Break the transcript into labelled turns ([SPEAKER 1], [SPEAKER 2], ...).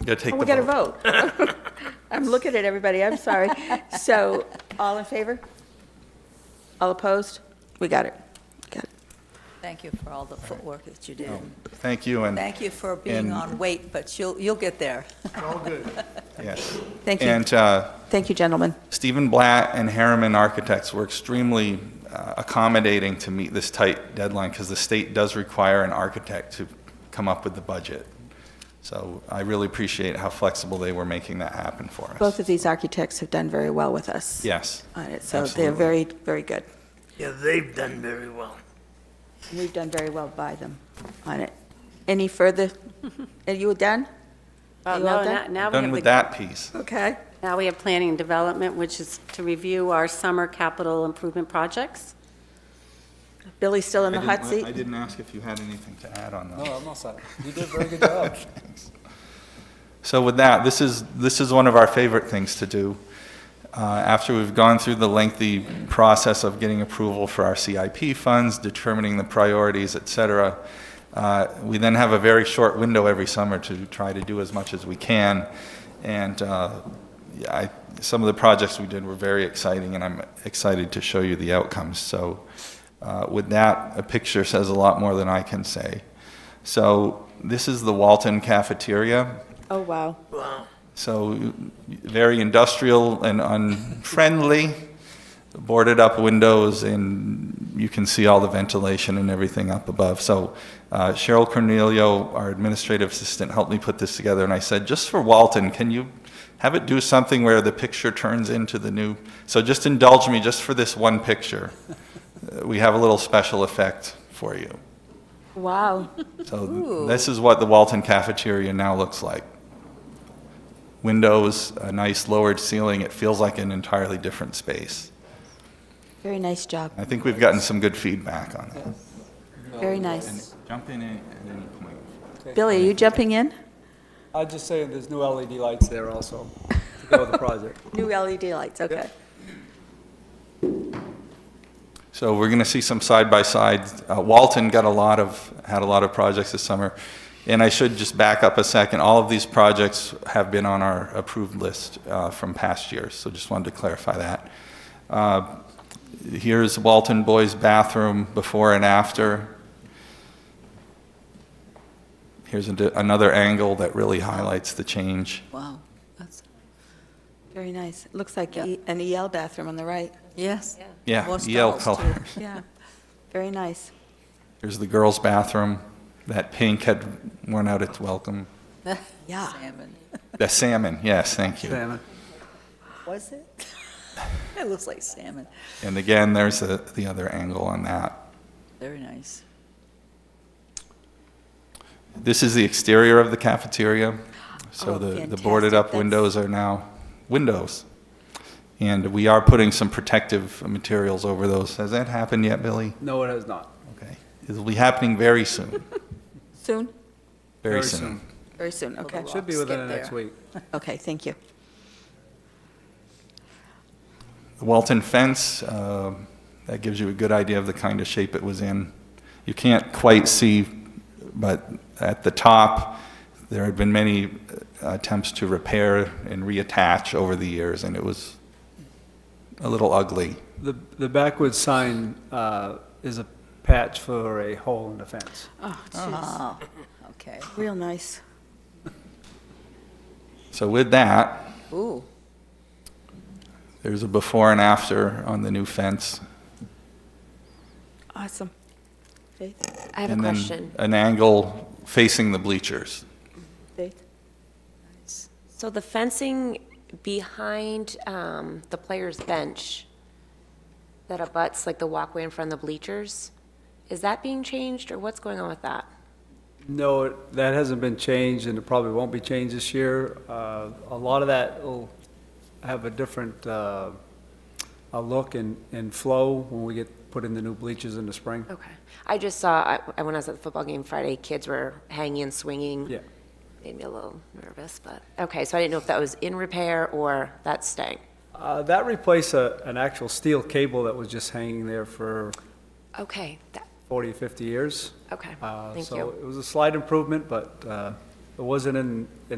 [SPEAKER 1] Gotta take
[SPEAKER 2] Oh,
[SPEAKER 1] the vote.
[SPEAKER 2] we got to vote. I'm looking at everybody, I'm sorry. So, all in favor? All opposed? We got it. Got it.
[SPEAKER 3] Thank you for all the footwork that you did.
[SPEAKER 1] Thank you, and,
[SPEAKER 3] Thank you for being
[SPEAKER 1] And-
[SPEAKER 3] on wait, but you'll, you'll get there.
[SPEAKER 1] yes.
[SPEAKER 2] Thank you.
[SPEAKER 1] And uh,
[SPEAKER 2] Thank you, gentlemen.
[SPEAKER 1] Stephen Blatt and Harriman Architects were extremely uh, accommodating to meet this tight deadline, because the state does require an architect to come up with the budget. So I really appreciate how flexible they were making that happen for us.
[SPEAKER 2] Both of these architects have done very well with us.
[SPEAKER 1] Yes.
[SPEAKER 2] On it, so they're
[SPEAKER 1] Absolutely.
[SPEAKER 2] very, very good.
[SPEAKER 4] Yeah, they've done very well.
[SPEAKER 2] And We've done very well by them on it. Any further? Are you done?
[SPEAKER 5] Well,
[SPEAKER 2] You all
[SPEAKER 5] Oh, no,
[SPEAKER 2] done?
[SPEAKER 5] now- now we
[SPEAKER 1] Done
[SPEAKER 5] have
[SPEAKER 1] with
[SPEAKER 5] the-
[SPEAKER 1] that piece.
[SPEAKER 2] Okay.
[SPEAKER 5] Now we have planning and development, which is to review our summer capital improvement projects.
[SPEAKER 2] Billy's still in the
[SPEAKER 1] I
[SPEAKER 2] hot
[SPEAKER 1] didn't-
[SPEAKER 2] seat?
[SPEAKER 1] I didn't ask if you had anything to add on that.
[SPEAKER 6] No, I'm all set. You did a very good job.
[SPEAKER 1] So with that, this is, this is one of our favorite things to do. Uh, After we've gone through the lengthy process of getting approval for our CIP funds, determining the priorities, et cetera, uh, we then have a very short window every summer to try to do as much as we can. And uh, yeah, I, some of the projects we did were very exciting, and I'm excited to show you the outcomes. So uh, with that, a picture says a lot more than I can say. So this is the Walton Cafeteria.
[SPEAKER 2] Oh, wow.
[SPEAKER 4] Wow.
[SPEAKER 1] So very industrial and unfriendly, boarded up windows, and you can see all the ventilation and everything up above. So uh, Cheryl Cornelio, our administrative assistant, helped me put this together, and I said, just for Walton, can you have it do something where the picture turns into the new? So just indulge me just for this one picture. Uh, We have a little special effect for you.
[SPEAKER 2] Wow.
[SPEAKER 1] So th- this is what the Walton cafeteria now looks like. Windows, a nice lowered ceiling, it feels like an entirely different space.
[SPEAKER 2] Very nice job.
[SPEAKER 1] I think we've gotten some good feedback on that.
[SPEAKER 2] Very nice.
[SPEAKER 1] Jump in at any point.
[SPEAKER 2] Billy, are you jumping in?
[SPEAKER 6] I'd just say there's new LED lights there also to go with the project.
[SPEAKER 2] New LED lights, okay.
[SPEAKER 1] So we're going to see some side-by-side. Uh, Walton got a lot of, had a lot of projects this summer. And I should just back up a second. All of these projects have been on our approved list uh, from past years, so just wanted to clarify that. Uh, Here's Walton Boys Bathroom before and after. Here's a d- another angle that really highlights the change.
[SPEAKER 3] Wow, that's,
[SPEAKER 2] Very nice. Looks like
[SPEAKER 3] Yeah.
[SPEAKER 2] E- an EL bathroom on the right.
[SPEAKER 3] yes.
[SPEAKER 1] Yeah, E
[SPEAKER 3] More
[SPEAKER 1] EL
[SPEAKER 3] stalls, too.
[SPEAKER 1] color.
[SPEAKER 2] Yeah. Very nice.
[SPEAKER 1] Here's the girls' bathroom. That pink had worn out its welcome.
[SPEAKER 2] Yeah.
[SPEAKER 3] Salmon.
[SPEAKER 1] The salmon, yes, thank you.
[SPEAKER 6] Salmon.
[SPEAKER 3] Was it? It looks like salmon.
[SPEAKER 1] And again, there's the, the other angle on that.
[SPEAKER 3] Very nice.
[SPEAKER 1] This is the exterior of the cafeteria. So the,
[SPEAKER 2] Oh,
[SPEAKER 1] the
[SPEAKER 2] fantastic.
[SPEAKER 1] boarded up
[SPEAKER 2] That's-
[SPEAKER 1] windows are now windows. And we are putting some protective materials over those. Has that happened yet, Billy?
[SPEAKER 6] No, it has not.
[SPEAKER 1] Okay. It'll be happening very soon,
[SPEAKER 2] Soon?
[SPEAKER 1] very soon.
[SPEAKER 2] Very soon, okay.
[SPEAKER 3] the
[SPEAKER 6] Should be
[SPEAKER 3] Rocks
[SPEAKER 6] within
[SPEAKER 3] get
[SPEAKER 6] the next
[SPEAKER 3] there.
[SPEAKER 6] week.
[SPEAKER 2] Okay, thank you.
[SPEAKER 1] The Walton fence, um, that gives you a good idea of the kind of shape it was in. You can't quite see, but at the top, there had been many uh, attempts to repair and reattach over the years, and it was a little ugly.
[SPEAKER 6] The, the backward sign uh, is a patch for a hole in the fence.
[SPEAKER 2] Oh,
[SPEAKER 3] Oh, okay.
[SPEAKER 2] Real nice.
[SPEAKER 1] So with that,
[SPEAKER 3] Ooh,
[SPEAKER 1] there's a before and after on the new fence.
[SPEAKER 2] Awesome. Faith,
[SPEAKER 7] I have a
[SPEAKER 1] and then
[SPEAKER 7] question.
[SPEAKER 1] An angle facing the bleachers.
[SPEAKER 2] Faith?
[SPEAKER 7] So the fencing behind um, the player's bench that abuts like the walkway in front of the bleachers, is that being changed or what's going on with that?
[SPEAKER 6] No, it- that hasn't been changed, and it probably won't be changed this year. Uh, A lot of that will have a different uh, a look and, and flow when we get, put in the new bleachers in the spring.
[SPEAKER 7] Okay. I just saw, I- I- when I was at the football game Friday, kids were hanging and swinging.
[SPEAKER 6] Yeah.
[SPEAKER 7] Made me a little nervous, but, okay, so I didn't know if that was in repair or that's staying.
[SPEAKER 6] Uh, That replaced a- an actual steel cable that was just hanging there for
[SPEAKER 7] Okay, that,
[SPEAKER 6] 40, 50 years.
[SPEAKER 7] okay,
[SPEAKER 6] Uh,
[SPEAKER 7] thank you.
[SPEAKER 6] So it was a slight improvement, but uh, it wasn't in,